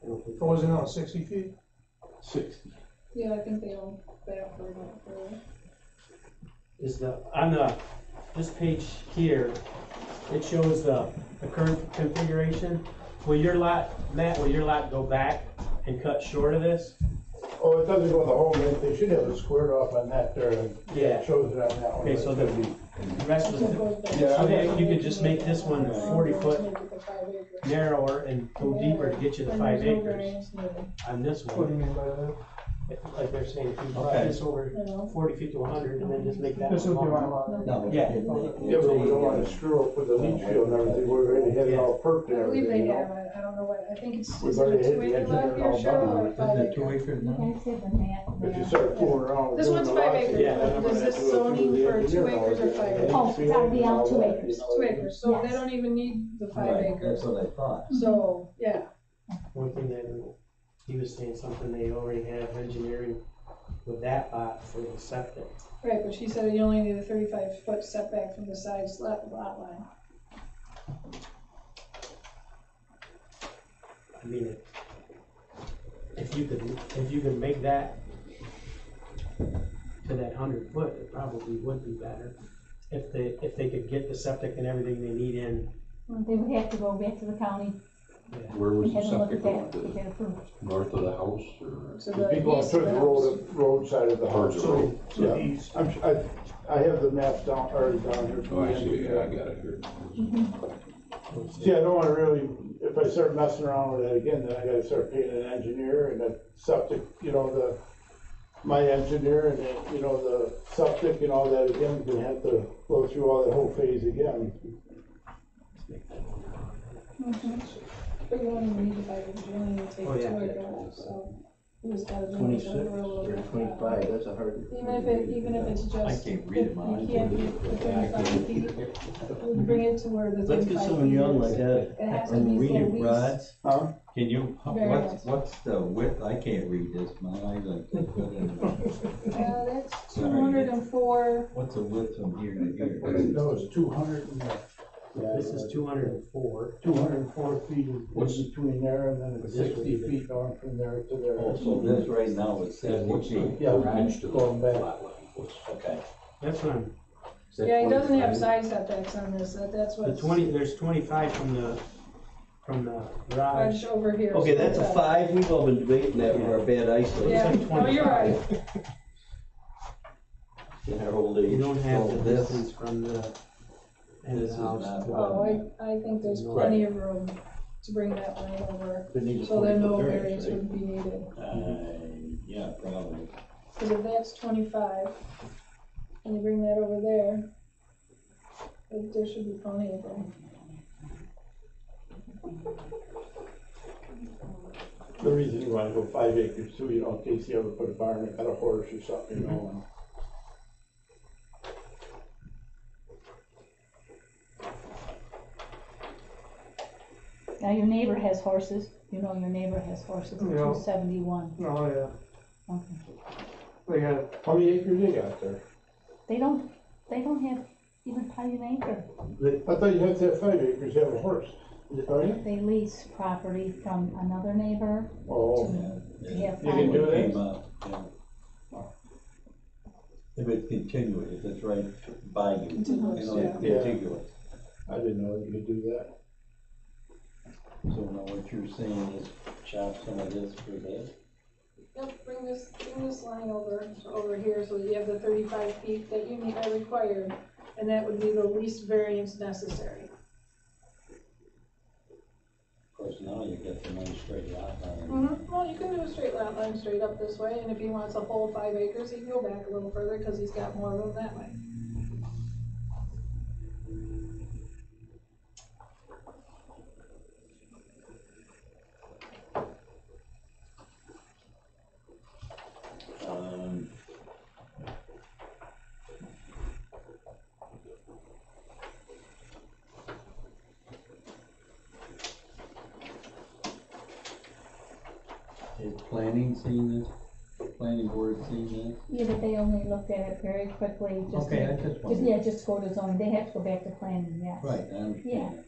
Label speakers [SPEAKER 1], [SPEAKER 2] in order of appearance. [SPEAKER 1] Or was it on sixty feet?
[SPEAKER 2] sixty.
[SPEAKER 3] Yeah, I think they don't, they don't worry about it for
[SPEAKER 4] is the, on the, this page here, it shows the, the current configuration. Will your lot, Matt, will your lot go back and cut short of this?
[SPEAKER 2] Oh, it doesn't go the whole length, they should have it squared off on that there, and
[SPEAKER 4] Yeah.
[SPEAKER 2] shows it on that one.
[SPEAKER 4] Okay, so
[SPEAKER 2] but it's
[SPEAKER 4] the-
[SPEAKER 2] gonna
[SPEAKER 4] The rest was
[SPEAKER 2] Yeah.
[SPEAKER 3] Yeah.
[SPEAKER 4] Okay, you could just make this one 40 foot. narrower and go deeper to get you the five acres on this
[SPEAKER 1] What do
[SPEAKER 4] one.
[SPEAKER 1] you mean by that?
[SPEAKER 4] Like they're saying, if you
[SPEAKER 5] Okay.
[SPEAKER 4] drive this over forty feet to hundred and then just make that one
[SPEAKER 1] This would be my
[SPEAKER 4] smaller.
[SPEAKER 1] lot.
[SPEAKER 5] No.
[SPEAKER 4] Yeah.
[SPEAKER 2] be- Yeah, but we don't wanna screw up with the leach field and everything, we're already had it all perked
[SPEAKER 3] I
[SPEAKER 2] and
[SPEAKER 3] believe
[SPEAKER 2] everything, you
[SPEAKER 3] they
[SPEAKER 2] know?
[SPEAKER 3] have, I, I don't know what, I think it's,
[SPEAKER 2] We've
[SPEAKER 3] is
[SPEAKER 2] already
[SPEAKER 3] it a
[SPEAKER 2] hit
[SPEAKER 3] two
[SPEAKER 2] the edge of
[SPEAKER 3] acre lot
[SPEAKER 2] it
[SPEAKER 3] here,
[SPEAKER 2] all
[SPEAKER 3] Cheryl,
[SPEAKER 2] done.
[SPEAKER 3] or
[SPEAKER 5] Isn't
[SPEAKER 3] five
[SPEAKER 5] that uh, two
[SPEAKER 3] acre?
[SPEAKER 5] acres
[SPEAKER 6] You
[SPEAKER 5] now?
[SPEAKER 6] guys have the map
[SPEAKER 2] If you
[SPEAKER 6] there.
[SPEAKER 2] start fooling around.
[SPEAKER 3] This one's five acres. Does this zoning for two acres or five acres?
[SPEAKER 6] Oh, it's gotta be all two acres.
[SPEAKER 3] It's two acres, so they
[SPEAKER 6] Yes.
[SPEAKER 3] don't even need the five
[SPEAKER 5] Right,
[SPEAKER 3] acres,
[SPEAKER 5] That's what I thought.
[SPEAKER 3] so, yeah,
[SPEAKER 4] One thing that, he was saying something they already have engineering with that lot for the septic.
[SPEAKER 3] right, but she said you only need a thirty-five foot setback from the side lot, lot line.
[SPEAKER 4] I mean, if you could, if you could make that to that hundred foot, it probably would be better. If they, if they could get the septic and everything they need in,
[SPEAKER 6] They would have to go back to the county
[SPEAKER 7] Where was
[SPEAKER 6] and
[SPEAKER 7] the
[SPEAKER 6] have a look
[SPEAKER 7] septic
[SPEAKER 6] at
[SPEAKER 7] going
[SPEAKER 6] that,
[SPEAKER 7] to
[SPEAKER 6] to
[SPEAKER 7] the
[SPEAKER 6] get approved.
[SPEAKER 7] north of the house or?
[SPEAKER 3] So
[SPEAKER 2] It'd
[SPEAKER 3] the
[SPEAKER 2] be going
[SPEAKER 3] east
[SPEAKER 2] through
[SPEAKER 3] of
[SPEAKER 2] the
[SPEAKER 3] the house.
[SPEAKER 2] road, roadside of the
[SPEAKER 7] Towards
[SPEAKER 2] house.
[SPEAKER 7] the
[SPEAKER 2] So,
[SPEAKER 7] road.
[SPEAKER 1] To the east.
[SPEAKER 2] I'm, su- I, I have the maps down, already down here.
[SPEAKER 7] Oh, I see, yeah, I got it here.
[SPEAKER 2] See, I don't wanna really, if I start messing around with that again, then I gotta start paying an engineer and a septic, you know, the, my engineer and, the, you know, the septic and all that again, we're gonna have to go through all that whole phase again.
[SPEAKER 3] Mm-hmm. But you only need the five acres, you only need to take
[SPEAKER 4] Oh, yeah.
[SPEAKER 3] two acres, so. You just gotta. do it
[SPEAKER 5] Twenty-six
[SPEAKER 3] over a little
[SPEAKER 5] or
[SPEAKER 3] bit.
[SPEAKER 5] twenty-five, that's a hard.
[SPEAKER 3] Even if it, even if it's
[SPEAKER 5] I
[SPEAKER 3] just.
[SPEAKER 5] can't read it, Mom.
[SPEAKER 3] You can't be within five feet, we'll bring it to where the.
[SPEAKER 5] Let's get
[SPEAKER 3] 35
[SPEAKER 5] someone young
[SPEAKER 3] feet
[SPEAKER 5] like
[SPEAKER 3] is.
[SPEAKER 5] that,
[SPEAKER 3] It has to
[SPEAKER 5] and
[SPEAKER 3] be
[SPEAKER 5] read
[SPEAKER 3] so
[SPEAKER 5] it,
[SPEAKER 3] we.
[SPEAKER 5] Rod.
[SPEAKER 2] Huh?
[SPEAKER 5] Can you,
[SPEAKER 3] Very
[SPEAKER 5] what's,
[SPEAKER 3] nice.
[SPEAKER 5] what's the width, I can't read this, my eyes like.
[SPEAKER 3] Uh, that's
[SPEAKER 5] Sorry.
[SPEAKER 3] two hundred and four,
[SPEAKER 5] What's the width from here to
[SPEAKER 2] That
[SPEAKER 5] here?
[SPEAKER 2] was two hundred and, yeah,
[SPEAKER 4] this is two hundred and four.
[SPEAKER 2] two hundred and four feet in
[SPEAKER 7] What's-
[SPEAKER 2] between there and then it's
[SPEAKER 4] This would
[SPEAKER 2] sixty
[SPEAKER 4] be-
[SPEAKER 2] feet on from there to
[SPEAKER 5] Oh,
[SPEAKER 2] there.
[SPEAKER 5] so this right now is
[SPEAKER 7] And
[SPEAKER 5] seventy
[SPEAKER 7] what's the
[SPEAKER 5] feet.
[SPEAKER 2] Yeah, we
[SPEAKER 7] garage to the
[SPEAKER 2] going back.
[SPEAKER 7] lot line? What's-
[SPEAKER 5] Okay.
[SPEAKER 4] That's what I'm,
[SPEAKER 7] is that
[SPEAKER 3] yeah, it doesn't have
[SPEAKER 7] 25?
[SPEAKER 3] side setbacks on this, that, that's
[SPEAKER 4] the
[SPEAKER 3] what's.
[SPEAKER 4] twenty, there's twenty-five from the, from the garage.
[SPEAKER 3] Bunch over here.
[SPEAKER 5] Okay, that's a
[SPEAKER 3] so-
[SPEAKER 5] five, we've all been debating that with our bad
[SPEAKER 3] Yeah,
[SPEAKER 5] eyesight
[SPEAKER 4] It's like
[SPEAKER 3] no, you're right,
[SPEAKER 4] 25.
[SPEAKER 5] in our old age.
[SPEAKER 4] You don't have
[SPEAKER 5] So
[SPEAKER 4] the
[SPEAKER 5] this-
[SPEAKER 4] distance from the end of
[SPEAKER 5] This
[SPEAKER 4] the
[SPEAKER 5] is
[SPEAKER 4] house.
[SPEAKER 5] not- uh,
[SPEAKER 4] to-
[SPEAKER 3] oh, I, I think there's
[SPEAKER 4] Right.
[SPEAKER 3] plenty of room to bring that line over,
[SPEAKER 5] We need a
[SPEAKER 3] so then
[SPEAKER 5] 40
[SPEAKER 3] no
[SPEAKER 5] foot
[SPEAKER 3] variance
[SPEAKER 5] right?
[SPEAKER 3] would be needed.
[SPEAKER 5] Uh, yeah, probably.
[SPEAKER 3] Cause if that's twenty-five, and you bring that over there, there- there should be plenty of room.
[SPEAKER 2] The reason you wanna go five acres too, you know, in case you ever put a barn, got a horse or something, you know, and
[SPEAKER 6] Now, your neighbor has horses, you know your neighbor has horses,
[SPEAKER 1] Yeah.
[SPEAKER 6] two seventy-one,
[SPEAKER 1] Oh, yeah,
[SPEAKER 6] okay.
[SPEAKER 1] they had,
[SPEAKER 2] How many acres you got there?
[SPEAKER 6] They don't, they don't have even probably an acre,
[SPEAKER 2] I thought you had to have five acres, you have a horse. Oh, yeah?
[SPEAKER 6] they lease property from another neighbor
[SPEAKER 2] Oh,
[SPEAKER 6] to, to have
[SPEAKER 2] You can
[SPEAKER 6] five.
[SPEAKER 2] do that?
[SPEAKER 5] Came up, yeah. If it's continuous, if it's right by you, you
[SPEAKER 3] Continuous,
[SPEAKER 5] know, it's
[SPEAKER 2] yeah.
[SPEAKER 5] contiguous.
[SPEAKER 2] I didn't know that you could do that.
[SPEAKER 5] So now what you're saying is chop some of this for that?
[SPEAKER 3] Yep, bring this, bring this line over, to over here, so that you have the thirty-five feet that you need, are required, and that would be the least variance necessary.
[SPEAKER 5] Of course, now you get the nice straight lot line.
[SPEAKER 3] Mhm. Well, you can do a straight lot line straight up this way, and if he wants a whole five acres, he can go back a little further, cause he's got more room that way.
[SPEAKER 5] Um, Is planning seen this? Planning board seen
[SPEAKER 6] Yeah, but they only looked at it very quickly,
[SPEAKER 5] this?
[SPEAKER 6] just,
[SPEAKER 5] Okay, I
[SPEAKER 6] to-
[SPEAKER 5] just
[SPEAKER 6] just,
[SPEAKER 5] wanted.
[SPEAKER 6] yeah, just go to zoning, they have to go back to planning, yes.
[SPEAKER 5] Right, um, I understand.